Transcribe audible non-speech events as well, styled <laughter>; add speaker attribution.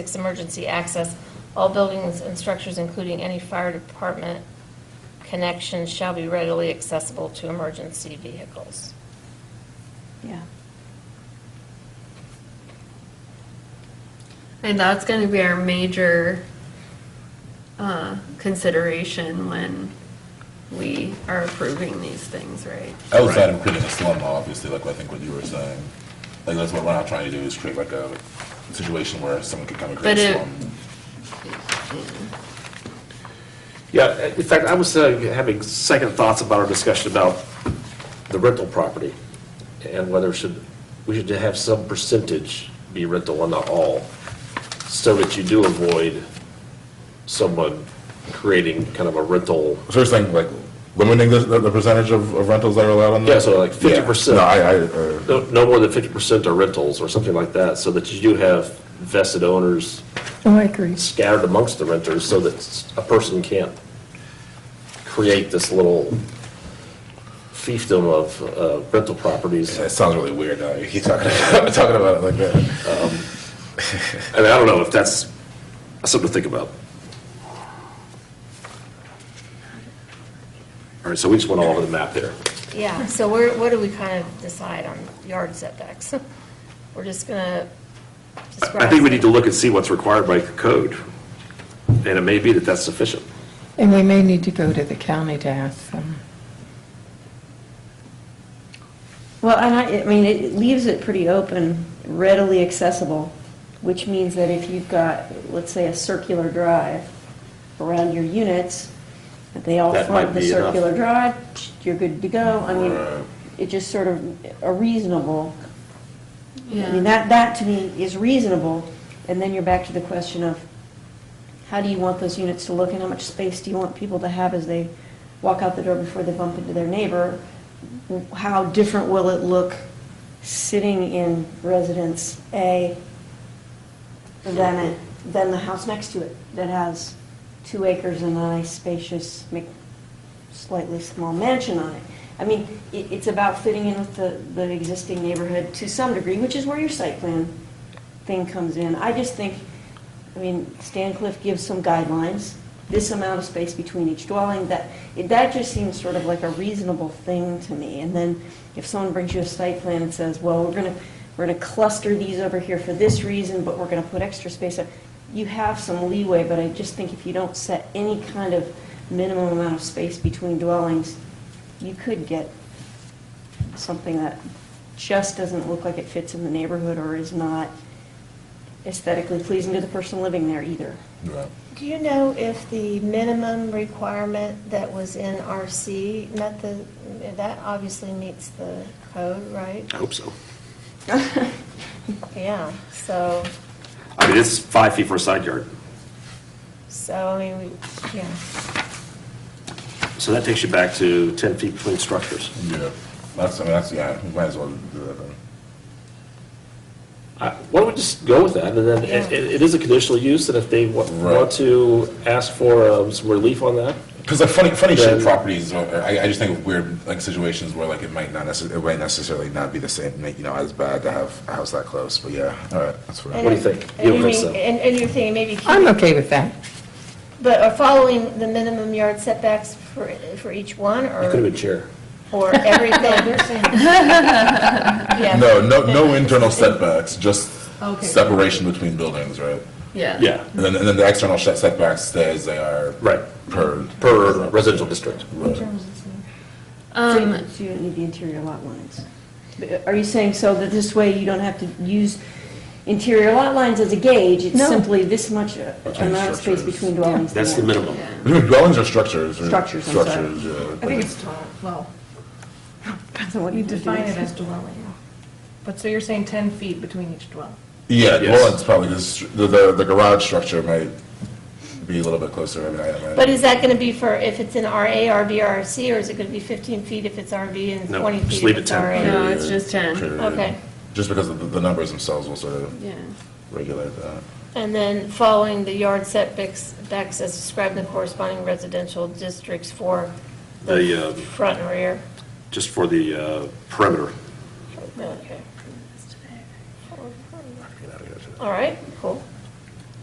Speaker 1: Six, emergency access. All buildings and structures, including any fire department connections, shall be readily accessible to emergency vehicles.
Speaker 2: Yeah.
Speaker 3: And that's going to be our major uh, consideration when we are approving these things, right?
Speaker 4: Outside of creating a slum, obviously, like I think what you were saying, like that's what we're not trying to do is create like a situation where someone could come and create
Speaker 3: But
Speaker 4: a
Speaker 3: it-
Speaker 4: slum.
Speaker 5: Yeah, in fact, I was uh, having second thoughts about our discussion about the rental property and whether should, we should have some percentage be rental and not all, so that you do avoid someone creating kind of a rental,
Speaker 4: So you're saying like limiting the, the the percentage of of rentals that are allowed on the?
Speaker 5: Yeah, so like 50%.
Speaker 4: No, I, I, uh,
Speaker 5: no no more than 50% are rentals or something like that, so that you do have vested owners
Speaker 2: Oh, I agree.
Speaker 5: scattered amongst the renters so that a person can't create this little fiefdom of uh, rental properties.
Speaker 4: it sounds really weird now, you keep talking, talking about <laughs> it like that.
Speaker 5: I mean, I don't know if that's something to think about. All right, so we just went all over the map there.
Speaker 1: Yeah, so where, what do we kind of decide on yard setbacks? <laughs> We're just gonna.
Speaker 5: I think we need to look and see what's required by code, and it may be that that's sufficient.
Speaker 2: And we may need to go to the county to ask them.
Speaker 6: Well, and I, I mean, it leaves it pretty open, readily accessible, which means that if you've got, let's say, a circular drive around your units, that they all
Speaker 5: That
Speaker 6: front
Speaker 5: might
Speaker 6: the
Speaker 5: be enough.
Speaker 6: circular drive, you're good to go. I
Speaker 4: Right.
Speaker 6: mean, it just sort of, a reasonable, I mean,
Speaker 3: Yeah.
Speaker 6: that, that to me is reasonable. And then you're back to the question of, how do you want those units to look and how much space do you want people to have as they walk out the door before they bump into their neighbor? How different will it look sitting in residence A than, it- than the house next to it that has two acres and a nice spacious, ma- slightly small mansion on it? I mean, it, it's about fitting in with the, the existing neighborhood to some degree, which is where your site plan thing comes in. I just think, I mean, Stancliff gives some guidelines, this amount of space between each dwelling, that, that just seems sort of like a reasonable thing to me. And then if someone brings you a site plan and says, well, we're gonna, we're gonna cluster these over here for this reason, but we're gonna put extra space up, you have some leeway, but I just think if you don't set any kind of minimum amount of space between dwellings, you could get something that just doesn't look like it fits in the neighborhood or is not aesthetically pleasing to the person living there either.
Speaker 4: Right.
Speaker 1: Do you know if the minimum requirement that was in RC met the, that obviously meets the code, right?
Speaker 5: I hope so.
Speaker 1: Yeah, so,
Speaker 5: I mean, it's five feet for a side yard,
Speaker 1: so, I mean, we, yeah,
Speaker 5: so that takes you back to 10 feet between structures.
Speaker 4: Yeah, that's, I mean, that's, yeah, we might as well do that then.
Speaker 5: I- Why don't we just go with that, and then, it it- it is a conditional use, and if they wa-
Speaker 4: Right.
Speaker 5: want to ask for um, some relief on that,
Speaker 4: Because like funny, funny shaped
Speaker 5: Then-
Speaker 4: properties, are- I, I just think of weird like situations where like it might not necessarily, it might necessarily not be the same, make, you know, as bad to have a house that close, but yeah, all right, that's fair.
Speaker 1: And-
Speaker 5: What do you think?
Speaker 1: And
Speaker 5: You
Speaker 1: you
Speaker 5: don't think
Speaker 1: mean-
Speaker 5: so?
Speaker 1: and, and you're thinking maybe
Speaker 2: I'm
Speaker 1: keeping,
Speaker 2: okay with that.
Speaker 1: but are following the minimum yard setbacks for, for each one,
Speaker 5: you could have
Speaker 1: or,
Speaker 5: been chair.
Speaker 1: or everything? <laughs> Yeah.
Speaker 4: No, no, no internal setbacks, just separation between buildings, right?
Speaker 3: Yeah.
Speaker 5: Yeah,
Speaker 4: And then, and then the external set- setbacks stay as they are.
Speaker 5: Right.
Speaker 4: Per.
Speaker 5: per residential district.
Speaker 4: Right.
Speaker 6: So you- so you don't need the interior lot lines. But Are you saying so that this way you don't have to use interior lot lines as a gauge? It's
Speaker 2: No.
Speaker 6: simply this much uh,
Speaker 4: Between
Speaker 6: amount of space
Speaker 4: structures.
Speaker 6: between dwellings?
Speaker 5: That's the
Speaker 6: Yeah.
Speaker 5: minimum.
Speaker 4: Between Dwellings or structures? or-
Speaker 6: Structures, I'm sorry.
Speaker 4: Structures, yeah.
Speaker 7: I think it's, tall. well,
Speaker 6: So what do
Speaker 7: you
Speaker 6: do
Speaker 7: define
Speaker 6: with
Speaker 7: it as dwelling. But so you're saying 10 feet between each dwelling?
Speaker 4: Yeah,
Speaker 5: Yes.
Speaker 4: dwellings probably, just- the, the, the garage structure might be a little bit closer, I mean, I imagine.
Speaker 1: But is that gonna be for, if it's an RA, RB, or RC, or is it gonna be fifteen feet if it's RV and
Speaker 5: No,
Speaker 1: twenty
Speaker 5: just
Speaker 1: feet
Speaker 5: leave
Speaker 1: if
Speaker 5: it
Speaker 1: it's
Speaker 5: 10.
Speaker 1: RA?
Speaker 3: No, it's just 10.
Speaker 4: Period.
Speaker 1: Okay.
Speaker 4: Just because of the, the numbers themselves will sort of
Speaker 3: Yeah.
Speaker 4: regulate that.
Speaker 1: And then following the yard setbacks backs as described in the corresponding residential districts for
Speaker 5: The,
Speaker 1: the
Speaker 5: um,
Speaker 1: front and rear.
Speaker 5: just for the uh, perimeter.
Speaker 1: Okay. All right, cool.